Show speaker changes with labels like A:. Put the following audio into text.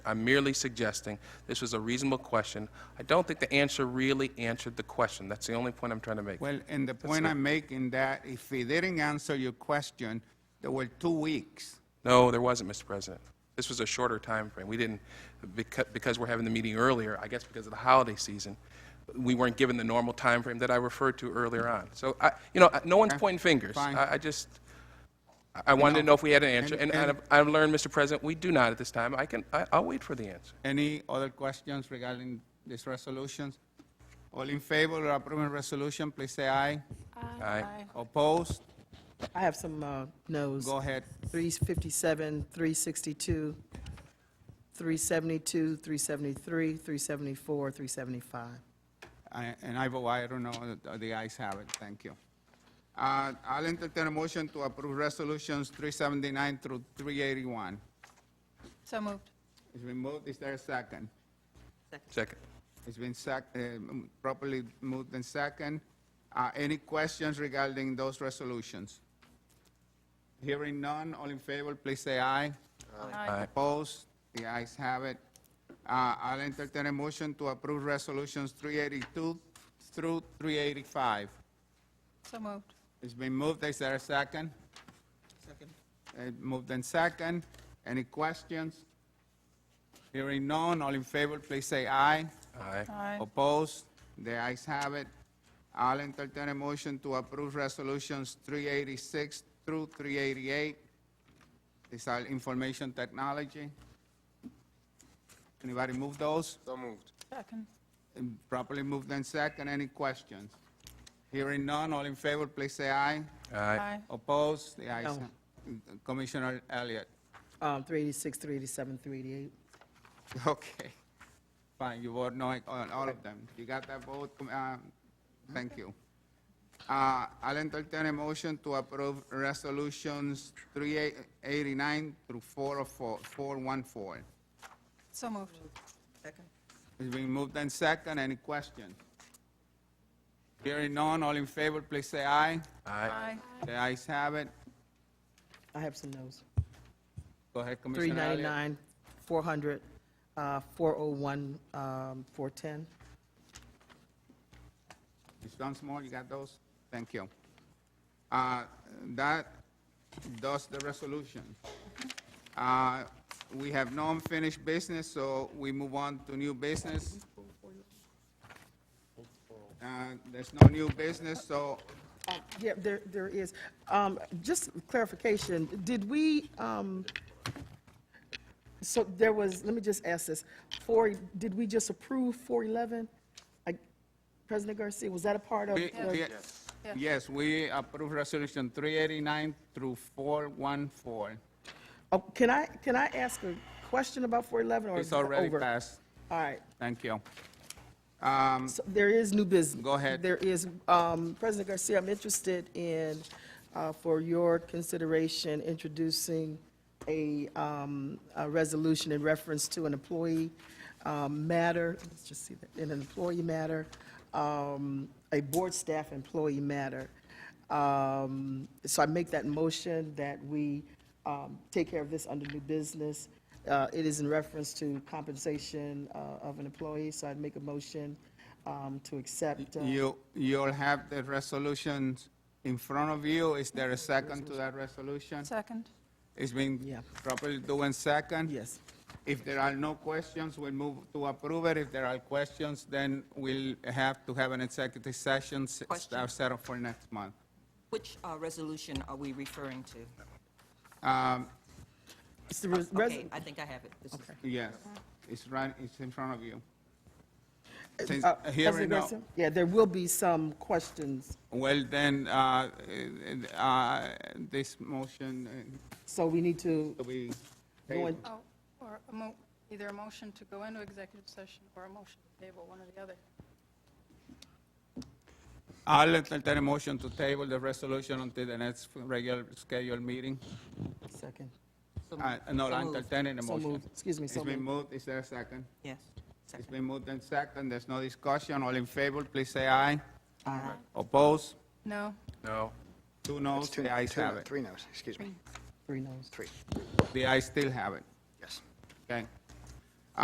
A: I'm merely suggesting this was a reasonable question. I don't think the answer really answered the question. That's the only point I'm trying to make.
B: Well, and the point I'm making that if he didn't answer your question, there were two weeks.
A: No, there wasn't, Mr. President. This was a shorter time frame. We didn't, because, because we're having the meeting earlier, I guess because of the holiday season, we weren't given the normal time frame that I referred to earlier on. So, I, you know, I- no one's pointing fingers.
B: fine.
A: I, I just, I- I wanted to know if we had an answer, and
B: And-
A: and I've- I've learned, Mr. President, we do not at this time. I can, I- I'll wait for the answer.
B: Any other questions regarding these resolutions? All in favor of approving resolution, please say aye.
A: Aye.
B: Opposed?
C: I have some uh, no's.
B: Go ahead.
C: 357, 362, 372, 373, 374, 375.
B: I- And I vote aye, I don't know, The- the ayes have it, thank you. Uh, I'll entertain a motion to approve resolutions 379 through 381.
D: So moved.
B: It's been moved, is there a second?
A: Second.
B: It's been sec, uh, m- properly moved and second. Uh, any questions regarding those resolutions? Hearing none, all in favor, please say aye.
A: Aye.
B: Opposed, the ayes have it. Uh, I'll entertain a motion to approve resolutions 382 through 385.
D: So moved.
B: It's been moved, is there a second? Second. Moved and second. Any questions? Hearing none, all in favor, please say aye.
A: Aye.
D: Aye.
B: Opposed? The ayes have it. I'll entertain a motion to approve resolutions 386 through 388. These are information technology. Anybody move those?
D: Second.
B: And Properly moved and second. Any questions? Hearing none, all in favor, please say aye.
A: Aye.
B: Opposed? The ayes.
C: No.
B: have- Commissioner Elliott.
C: Um, 386, 387, 388.
B: Okay. Fine, you vote no on all of them. You got that vote? Com- uh, Thank you. Uh, I'll entertain a motion to approve resolutions 389 through 404 414.
D: So moved.
C: Second.
B: It's been moved and second. Any question? Hearing none, all in favor, please say aye.
A: Aye.
D: Aye.
B: The ayes have it.
C: I have some no's.
B: Go ahead, Commissioner Elliott.
C: 399, 400, uh, 401, um, 410.
B: Ms. Dunsmore, you got those? Thank you. Uh, That does the resolution. Uh, We have no unfinished business, so we move on to new business. Uh, There's no new business, so
C: Yeah, there, there is. Um, Just clarification, did we, um, so there was, let me just ask this, four, did we just approve 411? I- President Garcia, was that a part of?
B: we- we-
C: the-
D: Yeah.
B: yes, we approve Resolution 389 through 414.
C: Oh, Can I, can I ask a question about 411 or? is
B: It's
C: it
B: already
C: over?
B: passed.
C: All right.
B: Thank you. Um,
C: So There is new business.
B: Go ahead.
C: There is, um, President Garcia, I'm interested in, uh, for your consideration, introducing a, um, a resolution in reference to an employee, um, matter, let's just see, that in an employee matter, um, a board staff employee matter. Um, so I make that motion that we, um, take care of this under new business. Uh, it is in reference to compensation, uh, of an employee, so I'd make a motion, um, to accept. uh,
B: You, you'll have the resolutions in front of you. Is there a second to that resolution?
D: Second.
B: It's been
C: Yeah.
B: properly doing second?
C: Yes.
B: If there are no questions, we'll move to approve it. If there are questions, then we'll have to have an executive session s- uh,
E: Question.
B: set up for next month.
E: Which uh, resolution are we referring to?
B: Um,
C: It's the res-
E: Uh, Okay,
C: res-
E: I think I have it. This is-
B: Yes, it's right, it's in front of you. Since
C: uh,
B: hearing
C: President
B: no-
C: Garcia? Yeah, there will be some questions,
B: Well, then, uh, uh, uh, this motion
C: so we need to
B: uh, we.
C: go in.
D: Oh, or a mo, either a motion to go into executive session or a motion to table, one or the other.
B: I'll entertain a motion to table the resolution until the next regular scheduled meeting.
C: Second.
E: so
B: Uh,
E: moved.
B: No,
E: So
B: I'm
E: moved.
B: entertaining a
C: So
B: motion.
C: moved. Excuse me,
B: It's
C: so
B: been
C: moved.
B: moved, is there a second?
E: Yes.
B: It's
E: Second.
B: been moved and second, there's no discussion, all in favor, please say aye.
C: Aye.
B: Oppose?
D: No.
A: No.
B: Two noes,
F: Two-
B: the ayes
F: two-
B: have it.
F: Three noes, excuse me,
C: Three noes.
F: three,
B: The ayes still have it,
F: yes.
B: okay?